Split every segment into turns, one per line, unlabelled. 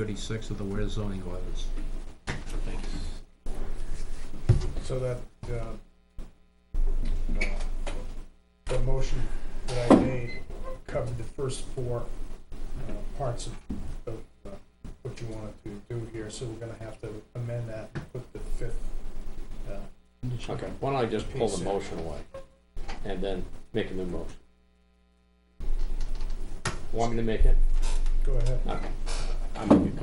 36 of the Ware zoning ordinance.
So that, uh, uh, the motion that I made covered the first four uh, parts of, of uh, what you wanted to do here, so we're gonna have to amend that and put the fifth. uh,
Okay, why don't I just pull the motion away and then make a new motion? Want me to make it?
Go ahead.
Okay. I'm gonna make it.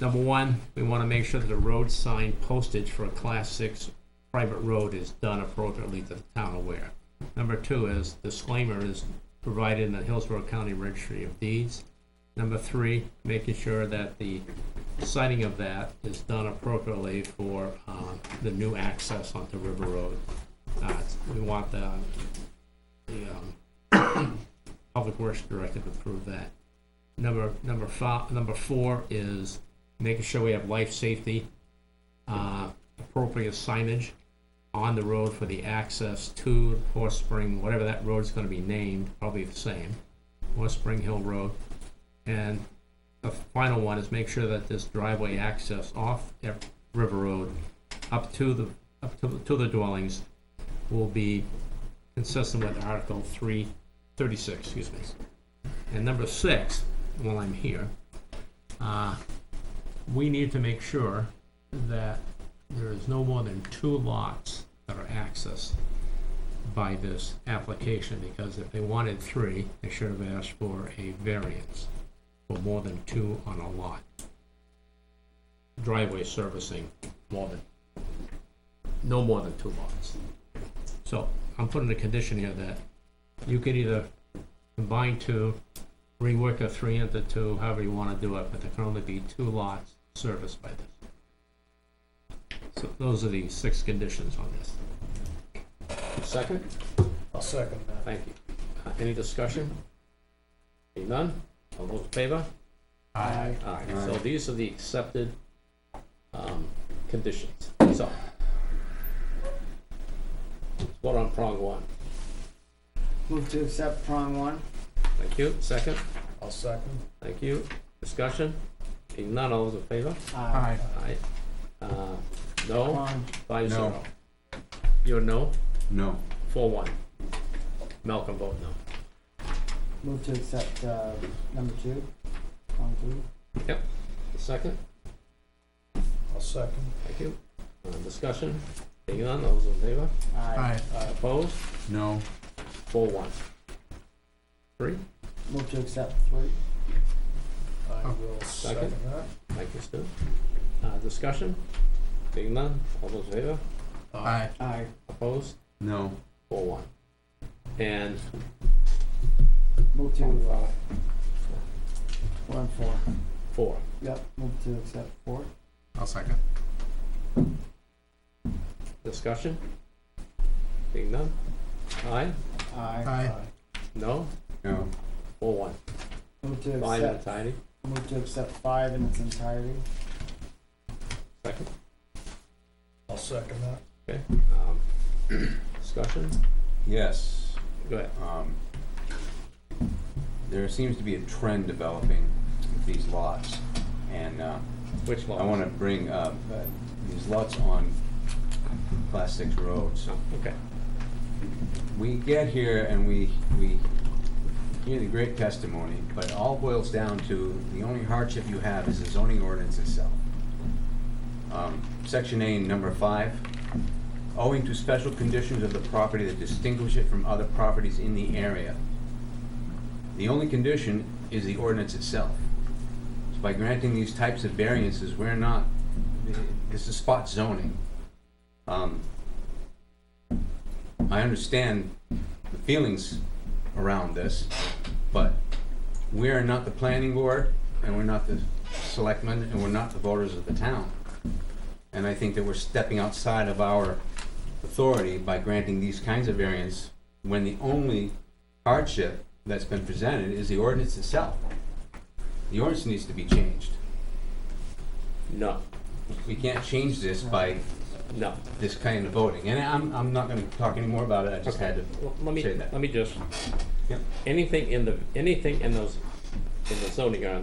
Number one, we want to make sure that the road sign postage for a Class 6 private road is done appropriately to the town of Ware. Number two is disclaimer is provided in the Hillsborough County Registry of Deeds. Number three, making sure that the signing of that is done appropriately for uh, the new access onto River Road. Uh, We want the, the um, Public Works Director to approve that. Number, number five, number four is making sure we have life safety, uh, appropriate signage on the road for the access to Horse Spring, whatever that road's gonna be named, probably the same, Horse Spring Hill Road. And the final one is make sure that this driveway access off Ev- River Road up to the, up to, to the dwellings will be consistent with Article three, thirty-six, excuse me. And number six, while I'm here, uh, we need to make sure that there is no more than two lots that are accessed by this application, because if they wanted three, they should have asked for a variance for more than two on a lot. Driveway servicing more than, no more than two lots. So I'm putting a condition here that you can either combine two, rework a three into two, however you wanna do it, but there can only be two lots serviced by this. So those are the six conditions on this.
Second,
I'll second that.
thank you. Uh, Any discussion? Seeing none, all those in favor?
Aye.
Aye. So these are the accepted, um, conditions, so. let's Vote on prong one,
Move to accept prong one.
thank you, second,
I'll second.
thank you, discussion, seeing none, all those in favor?
Aye.
Aye. Uh, no,
Prong,
five
No.
zero. You're no,
No.
four one. Malcolm vote no.
move to accept, uh, number two, prong two.
Yep. Second,
I'll second.
thank you. Uh, discussion, seeing none, all those in favor?
Aye. Uh,
Opposed,
No.
four one. Three,
Move to accept three.
I will
Second.
second that.
thank you, Stu. Uh, discussion, seeing none, all those in favor?
Aye.
Aye.
Opposed,
No.
four one. And
Move to, uh, one four.
four,
Yep, move to accept four.
I'll second.
discussion, seeing none? Aye,
Aye.
no,
No.
four one.
Move to
Fine and
accept,
tidy,
move to accept five in its entirety.
second.
I'll second that.
Okay, um, discussion,
Yes.
go ahead.
Um, there seems to be a trend developing with these lots, and uh,
Which law?
I want to bring up uh, these lots on Class Six roads.
Okay,
We get here and we we hear the great testimony, but it all boils down to the only hardship you have is the zoning ordinance itself. Um, Section A, number five, owing to special conditions of the property that distinguish it from other properties in the area. The only condition is the ordinance itself. So by granting these types of variances, we're not, this is spot zoning. Um, I understand the feelings around this, but we are not the planning board, and we're not the selectmen, and we're not the voters of the town. And I think that we're stepping outside of our authority by granting these kinds of variance when the only hardship that's been presented is the ordinance itself. The ordinance needs to be changed.
no,
We can't change this by
no.
this kind of voting, and I'm, I'm not gonna talk anymore about it, I just had to
Well, Let me,
say that.
let me just,
Yep.
anything in the, anything in those, in the zoning ordinance